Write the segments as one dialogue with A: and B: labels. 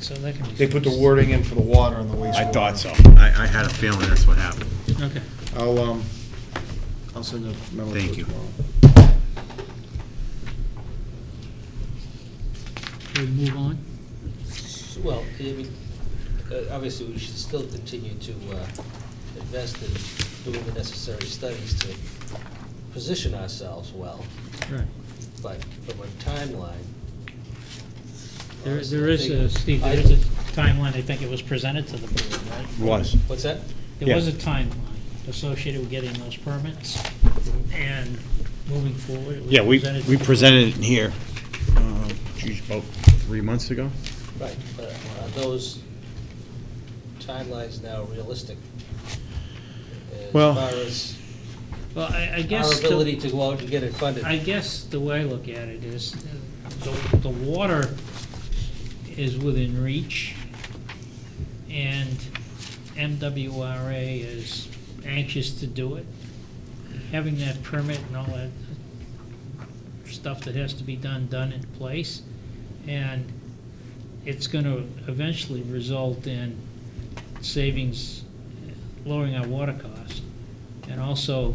A: So that can be.
B: They put the
A: fixed.
B: wording in for the water and the wastewater.
C: I thought so. I, I had a feeling that's what happened.
A: Okay.
B: I'll, um, I'll send a memo to
C: Thank
B: her
C: you.
B: tomorrow.
A: We move on?
D: Well, I mean, uh, obviously, we should still continue to uh, invest in doing the necessary studies to position ourselves well,
A: Right.
D: but from a timeline.
A: There, there is
D: I
A: a,
D: think-
A: Steve, there is a timeline, I think it was presented to the board, right?
C: Was.
D: What's that?
A: There was a timeline associated with getting those permits and moving forward. it was
C: Yeah, we,
A: presented to
C: we
A: the-
C: presented it here, uh, geez, about three months ago.
D: Right, but are those timelines now realistic?
C: Well-
D: As
A: Well, I, I
D: far
A: guess.
D: as
A: the-
D: our ability to go out and get it funded?
A: I guess the way I look at it is, the, the water is within reach, and MWRA is anxious to do it. Having that permit and all that stuff that has to be done, done in place, and it's gonna eventually result in savings, lowering our water costs, and also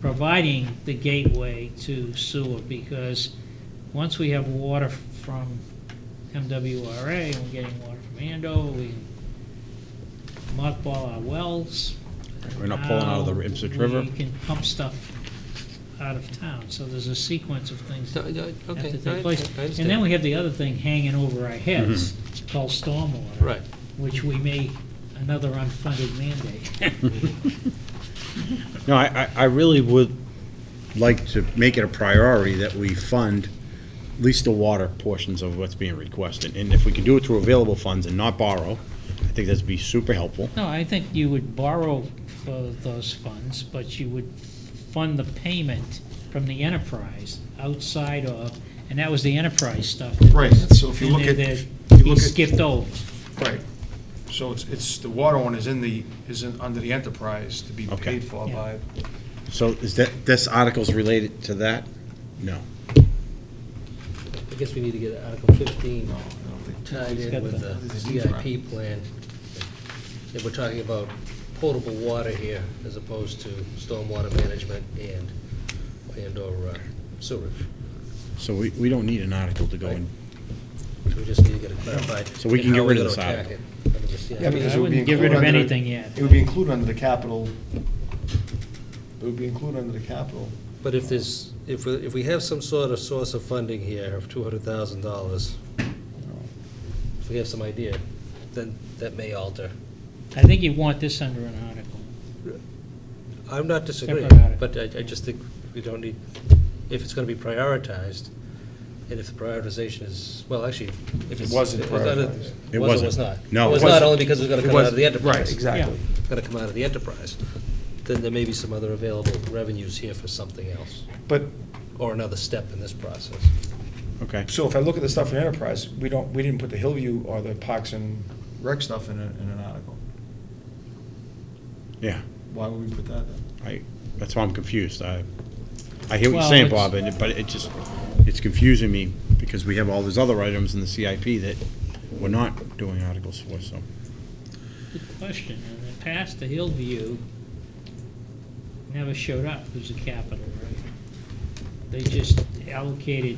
A: providing the gateway to sewer, because once we have water from MWRA, and we're getting water from Andover, we mothball our wells.
C: We're not pulling out of the
A: Now
C: Ipswich River.
A: We can pump stuff out of town, so there's a sequence of things
D: uh,
A: that have to take place. And then we have the other thing hanging over our heads, called stormwater.
D: Right.
A: Which we may, another unfunded mandate.
C: No, I, I- I really would like to make it a priority that we fund at least the water portions of what's being requested. And if we can do it through available funds and not borrow, I think that'd be super helpful.
A: No, I think you would borrow for those funds, but you would fund the payment from the enterprise outside of, and that was the enterprise stuff. that
B: Right,
A: was
B: so if you
A: in
B: look
A: there
B: at-
A: that
B: if you
A: He
B: look at-
A: skipped over.
B: Right. So it's, it's, the water one is in the, is in, under the enterprise to be
C: Okay.
B: paid for
A: Yeah.
B: by,
C: So is that, this article's related to that? No.
D: I guess we need to get Article 15
B: no, I don't think.
D: tied
A: got
D: in with
A: the-
D: the CIP plan. If we're talking about potable water here, as opposed to stormwater management and, and/or uh, sewage.
C: So we, we don't need an article to go in.
D: So we just need to get it clarified.
C: So we can
D: in
C: get
D: how
C: rid
D: we're
C: of
D: gonna
C: this
D: attack it under the CIP.
B: Yeah, because
A: I
B: it would be
A: wouldn't get rid of
B: included under the-
A: anything yet.
B: It would be included under the capital, it would be included under the capital.
D: But if there's, if, we- if we have some sort of source of funding here of two hundred thousand dollars, if we have some idea, then that may alter.
A: I think you want this under an article.
D: I'm not disagreeing,
A: Separate item.
D: but I, I just think we don't need, if it's gonna be prioritized, and if the prioritization is, well, actually, if it's.
B: wasn't
D: it was not-
B: prioritized.
C: It
D: It was or was
C: wasn't.
D: not?
C: No,
D: It
C: it
D: was not
B: wasn't.
D: only because it was gonna
B: It
D: come out
B: was-
D: of the enterprise.
B: Right, exactly.
D: Gonna come out of the enterprise. Then there may be some other available revenues here for something else,
B: But,
D: or another step in this process.
C: Okay.
B: so if I look at the stuff in enterprise, we don't, we didn't put the Hillview or the Parks and Rec stuff in, a- in an article.
C: Yeah,
B: Why would we put that in?
C: I, that's why I'm confused. I, I hear what
A: Well,
C: you're saying,
A: it's-
C: Bob, and it- but it just, it's confusing me because we have all these other items in the CIP that we're not doing articles for, so.
A: Good question, and in the past, the Hillview never showed up as a capital, right? They just allocated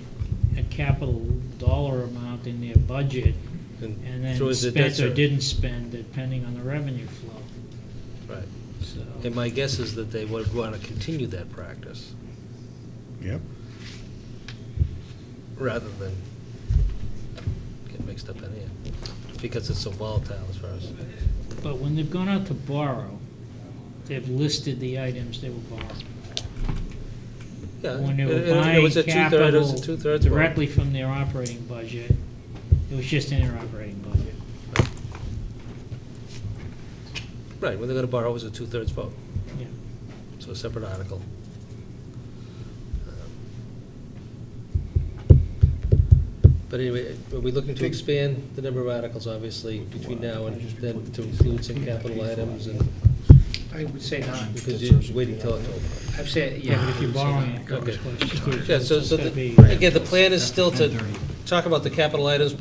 A: a capital dollar amount in their budget and
D: so
A: then
D: is it-
A: spent or
D: that's a-
A: didn't spend depending on the revenue flow,
D: Right.
A: so.
D: And my guess is that they would want to continue that practice,
C: Yep.
D: rather than get mixed up in here, because it's so volatile as far as,
A: But when they've gone out to borrow, they've listed the items they were borrowing.
D: yeah.
A: When they
D: Uh, it-
A: were
D: it- it
A: buying
D: was a two-third- It was a
A: capital
D: two-thirds vote.
A: directly from their operating budget, it was just in their operating budget.
D: Right, when they're going to borrow, it was a two-thirds vote,
A: Yeah.
D: so a separate article. Um, But anyway, are we looking to expand the number of articles, obviously, between now and then to include some capital items and,
E: I would say not.
D: because you're waiting till October?
E: I've said, yeah, but
A: If you're borrowing, it covers
D: Okay.
A: questions.
D: Yeah, so,
A: It's
D: so,
A: gotta
D: the-
A: be-
D: again, the plan is still to talk about the capital items,